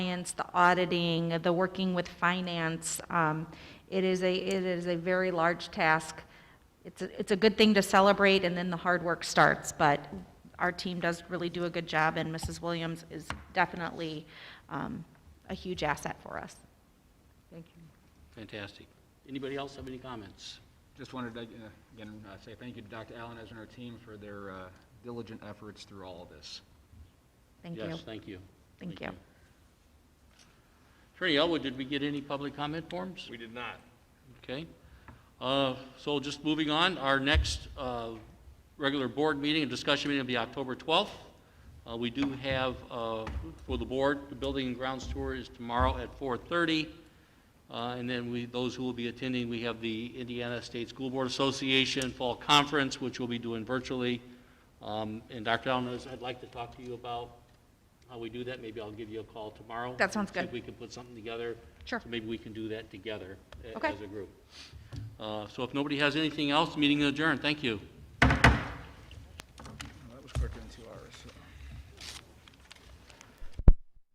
compliance, the auditing, the working with finance. Um, It is a, it is a very large task. It's, a- it's a good thing to celebrate, and then the hard work starts, but our team does really do a good job, and Mrs. Williams is definitely um, a huge asset for us. Thank you. Fantastic. Anybody else have any comments? Just wanted to, uh, again, uh, say thank you to Dr. Allen and her team for their uh, diligent efforts through all of this. Thank you. Yes, thank you. Thank you. Attorney Elwood, did we get any public comment forms? We did not. Okay. Uh, So just moving on, our next uh, regular board meeting and discussion meeting will be October 12th. Uh, We do have, uh, for the board, the building and grounds tour is tomorrow at 4:30. Uh, And then we, those who will be attending, we have the Indiana State School Board Association Fall Conference, which we'll be doing virtually. Um, And Dr. Allen, I'd like to talk to you about how we do that. Maybe I'll give you a call tomorrow. That sounds See if good. we can put something together. Sure. So maybe we can do that together a- Okay. as a group. Uh, So if nobody has anything else, meeting adjourned. Thank you. That was quicker than two hours.